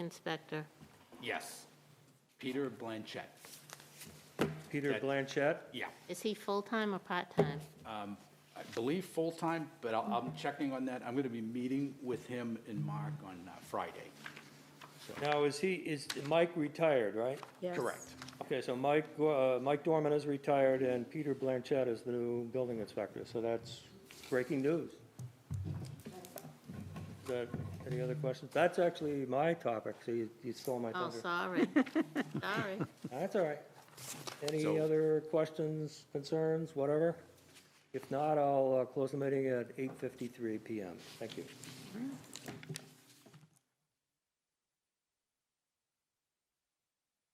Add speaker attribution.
Speaker 1: inspector?
Speaker 2: Yes. Peter Blanchett.
Speaker 3: Peter
Speaker 2: That-
Speaker 3: Blanchett?
Speaker 2: Yeah.
Speaker 1: Is he full-time or part-time?
Speaker 2: I believe full-time, but I'll- I'm checking on that. I'm going to be meeting with him and Mark on uh, Friday.
Speaker 3: Now, is he, is Mike retired, right?
Speaker 2: Correct.
Speaker 3: Okay, so Mike, uh, Mike Dorman is retired and Peter Blanchett is the new building inspector, so that's breaking news. Is that- any other questions? That's actually my topic, so you, you stole my
Speaker 1: Oh,
Speaker 3: thunder.
Speaker 1: sorry. Sorry.
Speaker 3: That's all right. Any
Speaker 2: So-
Speaker 3: other questions, concerns, whatever? If not, I'll uh, close the meeting at 8:53 PM. Thank you.